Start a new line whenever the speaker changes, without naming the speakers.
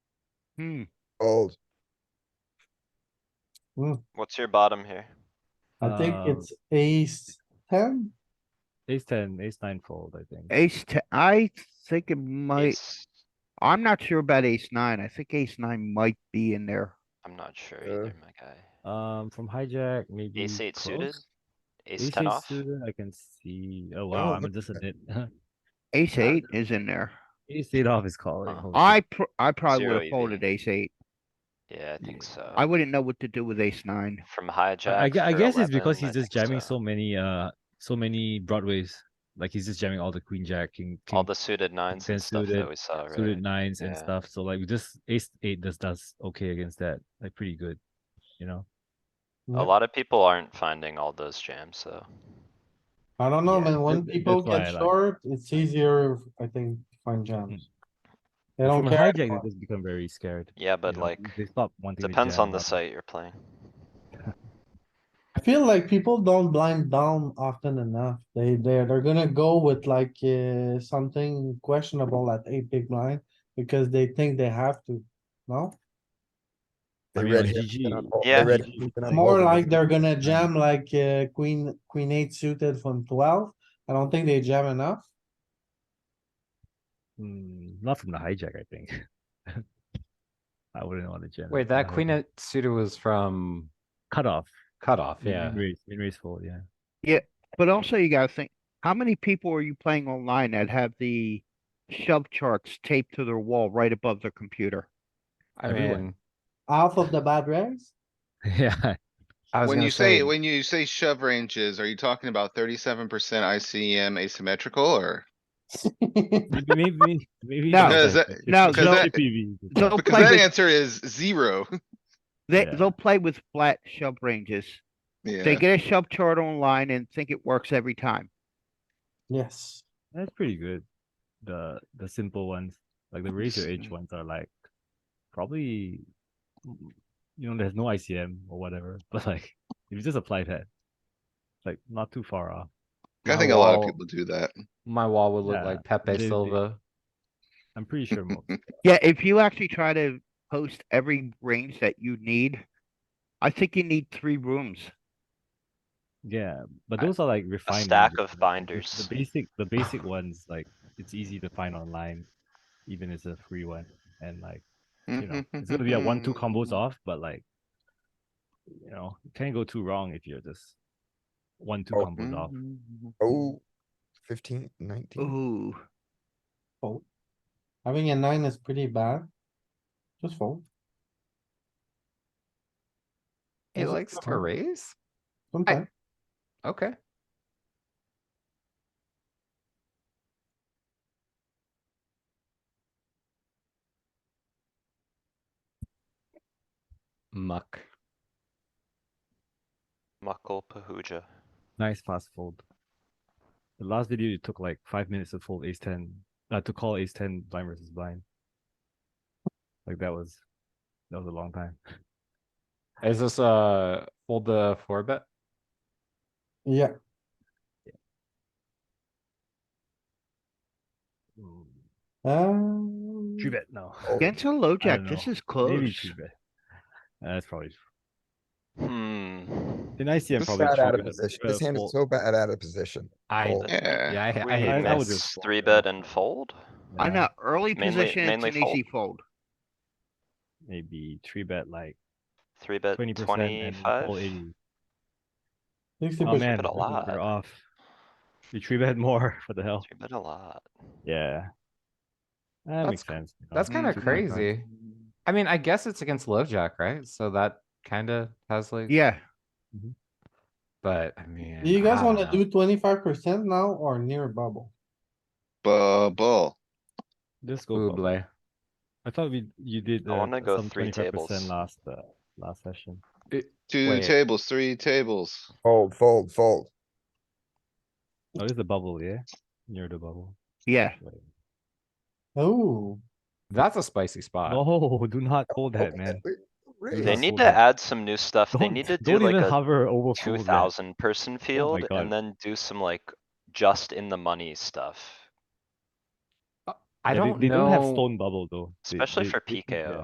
Hmm,
Old.
What's your bottom here?
Mm, I think
Um,
it's ace ten.
Ace ten, ace nine fold, I think.
ace ten, I think it might,
Ace-
I'm not sure about ace nine. I think ace nine might be in there.
I'm not sure
Uh,
either, my guy.
Um, from hijack, maybe.
Ace eight suited?
close?
Ace ten
eight
off?
suited, I can see, oh
Oh,
wow, I'm a
look at
dissident.
Ace
Uh,
eight is in there.
Ace eight off is calling.
Uh,
holy
I, pr- I probably
Zero Oh.
would have
EV.
folded ace eight.
Yeah, I think
I
so.
wouldn't know what to do with ace nine.
From
I- I,
hijack.
gue- I
through
guess it's because
11,
he's just
I think
jamming so many uh so many broadways. Like he's just jamming all the queen jack, king, king
All the suited nines
ten
and stuff that
suited-
we saw,
suited
right?
nines and
Yeah.
stuff. So like just ace eight just does okay against that. Like pretty good. You know?
A lot of people aren't finding all those jams, though.
I don't know,
Yeah,
man. When
that- that-
people
that's why
get
I like-
short, it's easier, I think, to find jams. They don't
Hmm. From a
care.
hijack,
anymore.
they just become very scared.
Yeah,
you
but
know?
like,
they stop wanting to
depends
jam
on the
up.
site you're playing.
I feel like people don't blind down often enough. They, they're, they're gonna go with like, uh, something questionable at eight big blind because they think they have to, no?
They
I mean,
red
like,
hit
GG.
and unfold- they
Yeah.
red hit and
More
unfold.
like they're gonna jam like, uh, queen, queen eight suited from twelve. I don't think they jam enough.
Mm, not from the hijack, I think. I wouldn't want to jam. it
Wait,
from
that
the
queen
hijack.
eight suited was from
cut off.
cutoff, yeah.
Min raise, min raise fold, yeah.
But also you gotta think, how many people are you playing online that have the shove charts taped to their wall right above their computer?
I
Everyone.
mean,
Half of the bad raise?
Yeah,
I was
When
gonna
you say,
say-
when you say shove ranges, are you talking about thirty-seven percent ICM asymmetrical or?
maybe, maybe, maybe.
No.
Because that-
no,
because that-
Oh,
They'll
Because
play
that
with,
answer is zero.
they,
Yeah.
they'll play with flat shove ranges. They
Yeah,
get a shove chart online and think it works every time.
Yes.
That's pretty good. The the simple ones, like the raise your edge ones, are like probably mm, you know there's no ICM or whatever, but like if you just apply that, like not too far off.
I
my
think a lot of
wall-
people do that.
My wall would
Yeah,
look like Pepe
they- they-
Silva.
I'm pretty sure most.
Yeah, if you actually try to post every range that you need, I think you need three rooms.
Yeah, but
I-
those are like refined.
stack
ranges,
of
like, the-
binders.
The basic, the basic ones, like it's easy to find online, even it's a free one, and like you know it's gonna be a one two
Mm-hmm.
combos off, but like you know you can't go too wrong if you're just one two
Oh,
Mm-hmm.
combos off.
Oh, fifteen, nineteen.
Ooh,
Fold. Having a nine is pretty bad. Just fold.
He
Is it
likes to
covered?
raise?
Sometimes.
Okay. Muck.
Muckle Pahuja.
Nice fast fold. The last video you took like five minutes to fold ace ten, uh, to call ace ten blind versus blind. Like that was, that was a long time.
Is this uh fold the four bet?
Yeah,
Mm.
um.
Three bet no.
Oh,
against a low jack,
don't
this
know.
is
Maybe
close.
three bet. Uh, that's probably
Hmm.
Then I see him
This is
probably
bad
three
out of
bet,
position.
uh,
This hand
fold.
is so bad out of position.
I,
Fold.
Yeah,
yeah, I, ha- I
We
hate
I would
this.
mix
fold,
three
yeah.
bet and fold?
I
Yeah,
know, early
Mainly-
position, it's
mainly
an easy fold.
Maybe three bet like
Three bet
twenty percent and
twenty-five?
fold eighty.
Sixty
Oh
percent.
man,
bet a
I think
lot.
we're off. You three bet more for the hell.
Three bet a lot.
Oh. Yeah. That
That's
makes
ki-
sense. you know.
That's kind of
Three bet, huh?
crazy. I mean, I guess it's against LoveJack, right? So that kind of has like,
Yeah,
but I mean.
Do you guys
I don't
wanna
know.
do twenty-five percent now or near bubble?
Bubble.
Just go. bubble.
Buble.
I thought we, you did.
I
uh,
wanna go
some
three
25%
tables.
Last, uh, last session.
Two
Wait.
tables, three tables.
Fold, fold, fold.
Oh, it's the bubble, yeah? Near the bubble.
yeah.
Wait.
Oh,
That's a spicy spot.
No, do not hold that,
Okay,
man.
we- raise.
They
That's
need
so
to
dumb.
add some new stuff. They
Don't-
need to do
Don't
like
even
a
hover over
two
fold that.
thousand person field
Oh God.
and then do some like just in the money stuff.
I
Yeah, they-
don't
They don't have
know-
stone bubble though. They-
Especially
they-
for
they- yeah.
PKO.